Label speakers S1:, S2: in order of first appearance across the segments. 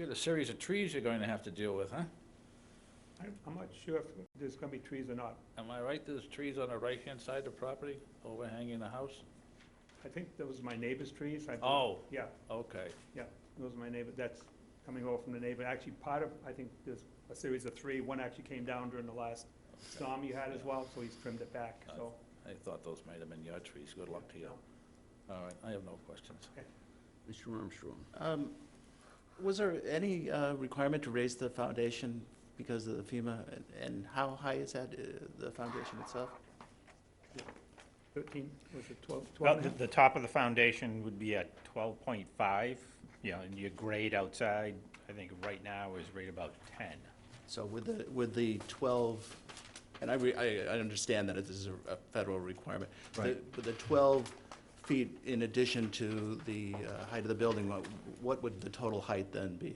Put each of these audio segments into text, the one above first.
S1: Got a series of trees you're going to have to deal with, huh?
S2: I'm, I'm not sure if there's gonna be trees or not.
S1: Am I right, there's trees on the right-hand side of the property overhanging the house?
S2: I think those are my neighbor's trees. I believe.
S1: Oh,
S2: Yeah,
S1: okay.
S2: those are my neighbor, that's coming over from the neighbor. Actually, part of, I think there's a series of three. One actually came down during the last storm you had as well, so he's trimmed it back, so.
S1: I thought those might have been your trees. Good luck to you. All right, I have no questions.
S3: Mr. Armstrong.
S4: Um, Was there any uh, requirement to raise the foundation because of the FEMA, and- and how high is that, uh, the foundation itself?
S2: Thirteen, was it twelve?
S5: Well,
S2: 12
S5: the, the top of the foundation would be at twelve point five, you know, and your grade outside, I think right now is right about ten.
S4: So with the, with the 12, and I, re- I I understand that this is a a federal requirement. The-
S5: Right.
S4: But the 12 feet in addition to the uh, height of the building, what- what would the total height then be?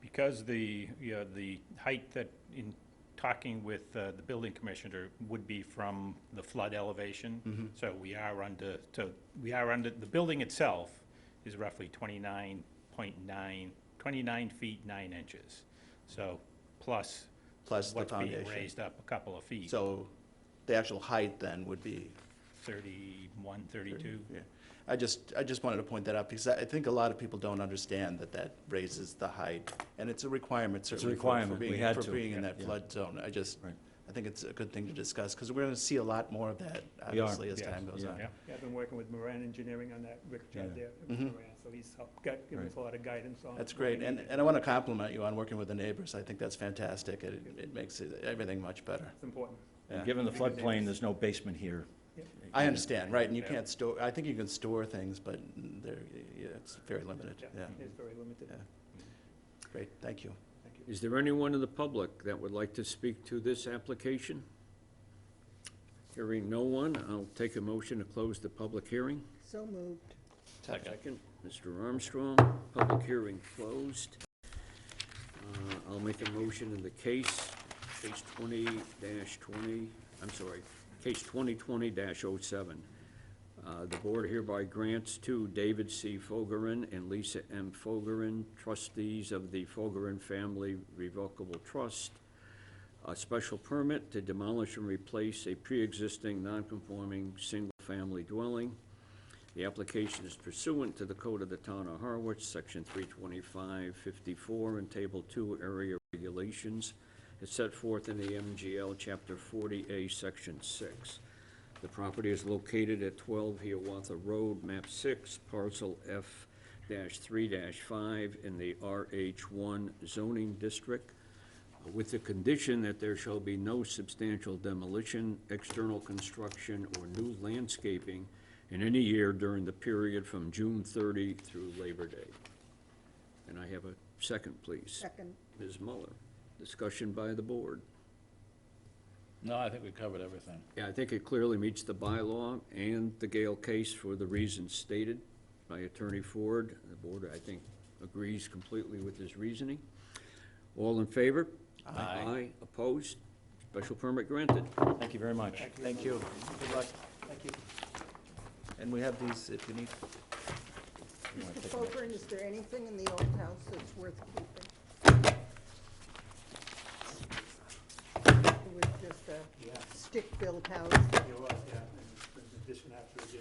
S5: Because the, you know, the height that in talking with uh, the building commissioner would be from the flood
S4: Mm-hmm.
S5: elevation. So we are under, so we are under, the building itself is roughly 29.9, 29 feet nine inches. So plus.
S4: Plus the
S5: What's
S4: foundation.
S5: being raised up a couple of feet.
S4: So the actual height then would be
S5: 31, 32.
S4: Yeah, I just, I just wanted to point that out, because I I think a lot of people don't understand that that raises the height, and it's a requirement
S6: a
S4: certainly for- for
S6: requirement. We
S4: being,
S6: had
S4: for
S6: to.
S4: being in that
S6: Yeah.
S4: flood zone. I just,
S6: Right.
S4: I think it's a good thing to discuss, because we're going to see a lot more of that,
S6: We are.
S4: obviously, as
S5: Yes.
S4: time goes
S6: Yeah.
S4: on.
S5: Yeah.
S2: Yeah, I've been working with Moran Engineering on that, Rick Judd
S6: Yeah.
S2: there, at Moran, so he's helped, got, given us a
S6: Right.
S2: lot of guidance on.
S4: That's
S2: what we
S4: great, and,
S2: need.
S4: and I want to compliment you on working with the neighbors. I think that's fantastic. It, it makes it- everything much better.
S2: It's important.
S4: Yeah.
S6: And given the floodplain, there's no basement here.
S2: Yep.
S4: I understand, right, and you
S5: Yeah.
S4: can't store, I think you can store things, but there, yeah, it's very limited, yeah.
S2: It's very limited.
S4: Yeah. Great, thank you.
S2: Thank you.
S3: Is there anyone in the public that would like to speak to this application? Hearing no one, I'll take a motion to close the public hearing.
S7: So moved.
S3: Second. Mr. Armstrong, public hearing closed. Uh, I'll make a motion in the case, case twenty twenty, I'm sorry, case twenty twenty oh 7 Uh, the board hereby grants to David C. Fogerin and Lisa M. Fogerin, trustees of the Fogerin Family Revocable Trust, a special permit to demolish and replace a pre-existing non-conforming single-family dwelling the application is pursuant to the code of the town of Harwich, section three twenty-five fifty-four and table two area regulations. as set forth in the MGL chapter forty A, section six. The property is located at twelve Hiawatha Road, map six, parcel F three five in the RH one zoning district uh, with the condition that there shall be no substantial demolition, external construction, or new landscaping in any year during the period from June 30 through Labor Day. And I have a second, please.
S7: Second.
S3: Ms. Muller, discussion by the board.
S1: No, I think we covered everything.
S3: Yeah, I think it clearly meets the bylaw and the Gale case for the reasons stated by Attorney Ford. The board, I think, agrees completely with his reasoning. All in favor?
S1: Aye.
S3: Aye, opposed? Special permit granted.
S6: Thank you very much.
S4: Thank you. Good luck. Thank you. And we have these if you need.
S7: Mr. Fogarty, is there anything in the old house that's worth keeping? It was just
S2: Yeah.
S7: a stick-built house.
S2: It was, yeah, and there's addition after addition.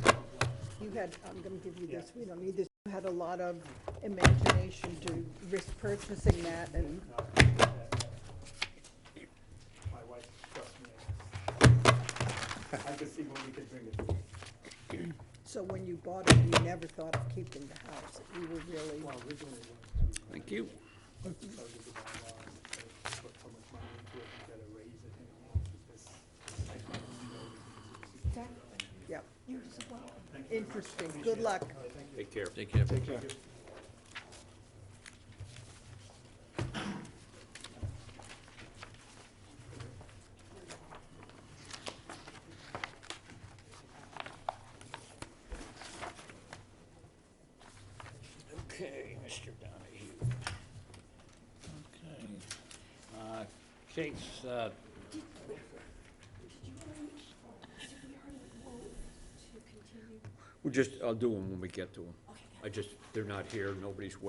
S2: but I'm-
S7: You had, I'm gonna give you this,
S2: Yeah.
S7: we don't need this. You had a lot of imagination to risk purchasing that and
S2: No, I think that My wife trusts me. I can see what we can bring it.
S7: so when you bought it, you never thought of keeping the house. You were really,
S2: Well, originally, it
S3: Thank you.
S2: was to tell you the bylaws, uh, put so much money into it, you gotta raise it and all of this. I can't even know.
S7: yeah. Interesting. Good luck.
S3: Take care.
S1: Take care.
S3: Okay, Mr. Donahue.
S1: Okay. Uh, Case, uh,
S3: We'll just, I'll do them when we get to them. I just, they're not here, nobody's